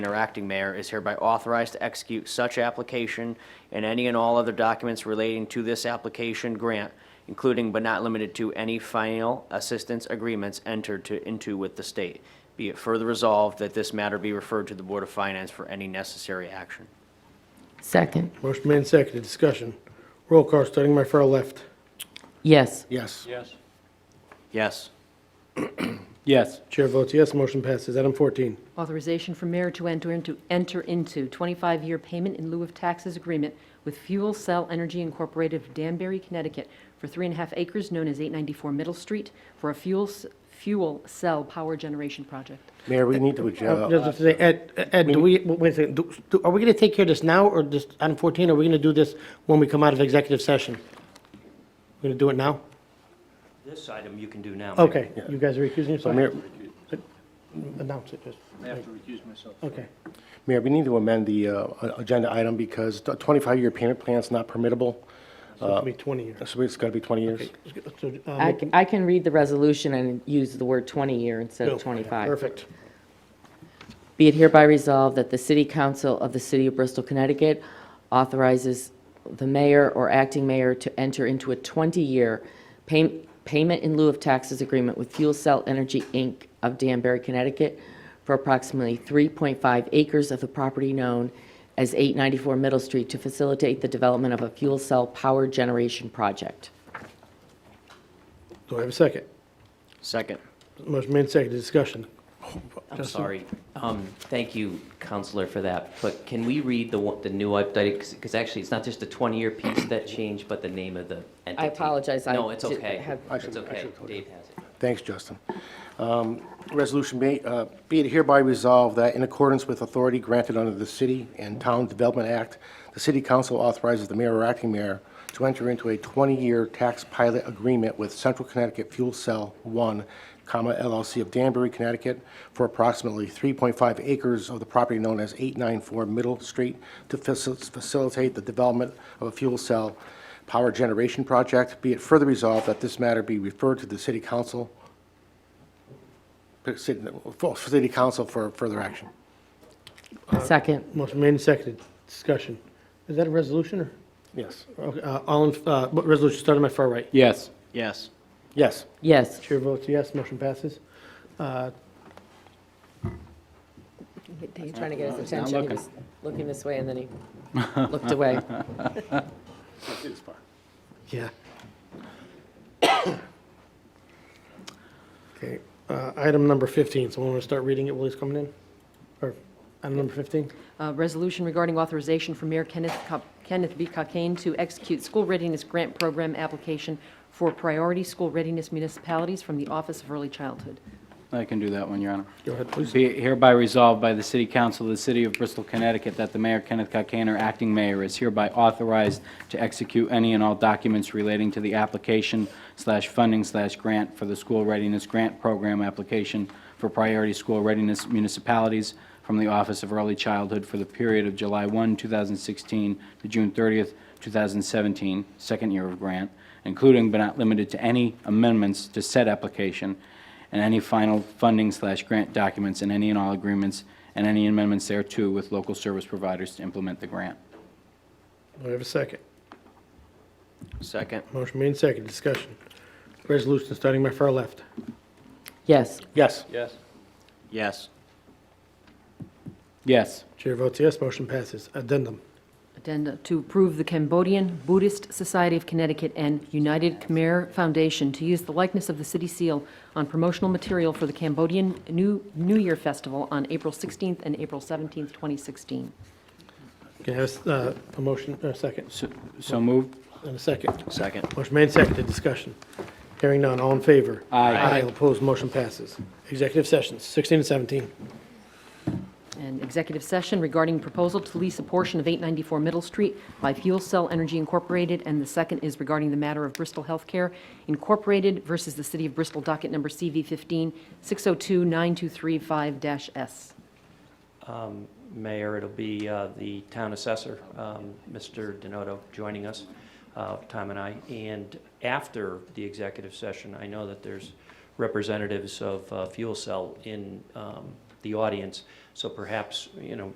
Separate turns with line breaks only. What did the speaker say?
and our acting mayor is hereby authorized to execute such application and any and all other documents relating to this application grant, including but not limited to any final assistance agreements entered to, into with the state. Be it further resolved that this matter be referred to the Board of Finance for any necessary action.
Second,
Motion made and seconded, discussion. Roll call, starting my far left.
yes.
Yes.
Yes.
Yes.
Yes.
Chair votes yes, motion passes. Item 14.
Authorization for mayor to enter into, enter into 25-year payment in lieu of taxes agreement with Fuel Cell Energy Incorporated of Danbury, Connecticut for three and a half acres known as 894 Middle Street for a fuel, s- fuel cell power generation project.
Mayor, we need to,
Uh,
adjo-
Just have to say, Ed, Ed, do we, wait a second, do- do- are we going to take care of this now, or this, item 14, are we going to do this when we come out of executive session? We're going to do it now?
This item you can do now. Mayor.
Okay, you guys are recusing
uh,
yourself?
Mayor,
Announce it, just,
I have to recuse myself.
okay.
Mayor, we need to amend the uh, a- agenda item because the 25-year payment plan's not permittable,
So it'll be 20 years.
so it's got to be 20 years.
So, uh,
I, c- I can read the resolution and use the word 20-year instead
no,
of 25.
Perfect.
Be it hereby resolved that the City Council of the City of Bristol, Connecticut authorizes the mayor or acting mayor to enter into a 20-year pay- payment in lieu of taxes agreement with Fuel Cell Energy, Inc. of Danbury, Connecticut for approximately 3.5 acres of the property known as 894 Middle Street to facilitate the development of a fuel cell power generation project.
Do I have a second?
Second.
Motion made and seconded, discussion.
I'm sorry. Um, Thank you, Counselor, for that. But can we read the, one- the new updated, because actually, it's not just the 20-year piece that changed, but the name of the entity.
apologize, I
No, it's
did-
okay.
have-
I
It's
should- I
okay.
should have told you.
Dave has it.
Thanks, Justin. Um, Resolution may, uh, be it hereby resolved that in accordance with authority granted under the City and Town Development Act, the City Council authorizes the mayor or acting mayor to enter into a 20-year tax pilot agreement with Central Connecticut Fuel Cell One, comma, LLC of Danbury, Connecticut, for approximately 3.5 acres of the property known as 894 Middle Street to facil- facilitate the development of a fuel cell power generation project. Be it further resolved that this matter be referred to the City Council for city- for city council for further action.
Uh, Second.
Motion made and seconded, discussion. Is that a resolution, or?
Yes.
Okay, uh, All, in- uh, but resolution starting my far right.
Yes.
Yes.
Yes.
Yes.
Chair votes yes, motion passes. Uh,
He's trying to get his attention.
not
He
looking.
was looking this way and then he looked away.
Yeah. Okay, uh, item number 15, someone want to start reading it while he's coming in? Or, item number 15?
Uh, Resolution regarding authorization for Mayor Kenneth Co- Kenneth B. Cockane to execute school readiness grant program application for priority school readiness municipalities from the Office of Early Childhood.
I can do that one, Your Honor.
Go ahead, please.
Be it hereby resolved by the City Council of the City of Bristol, Connecticut, that the Mayor Kenneth Cockane, or acting mayor, is hereby authorized to execute any and all documents relating to the application slash funding slash grant for the School Readiness Grant Program application for priority school readiness municipalities from the Office of Early Childhood for the period of July 1, 2016 to June 30th, 2017, second year of grant, including but not limited to any amendments to said application and any final funding slash grant documents and any and all agreements and any amendments thereto with local service providers to implement the grant.
Do I have a second?
Second.
Motion made and seconded, discussion. Resolution starting my far left.
Yes.
Yes.
Yes.
Yes.
Yes.
Chair votes yes, motion passes. Addendum.
Addenda to approve the Cambodian Buddhist Society of Connecticut and United Khmer Foundation to use the likeness of the city seal on promotional material for the Cambodian New New Year Festival on April 16th and April 17th, 2016.
Can I have uh, a motion, a second,
So- So moved?
and a second?
Second.
Motion made and seconded, discussion. Hearing none, all in favor?
Aye.
Aye, opposed, motion passes. Executive sessions, 16 and 17.
And executive session regarding proposal to lease a portion of 894 Middle Street by Fuel Cell Energy Incorporated, and the second is regarding the matter of Bristol Healthcare Incorporated versus the City of Bristol docket number CV 15 602-9235-S.
Mayor, it'll be uh, the town assessor, um, Mr. Denoto, joining us, uh, Tom and I. And after the executive session, I know that there's representatives of uh, Fuel Cell in um, the audience. So perhaps, you know,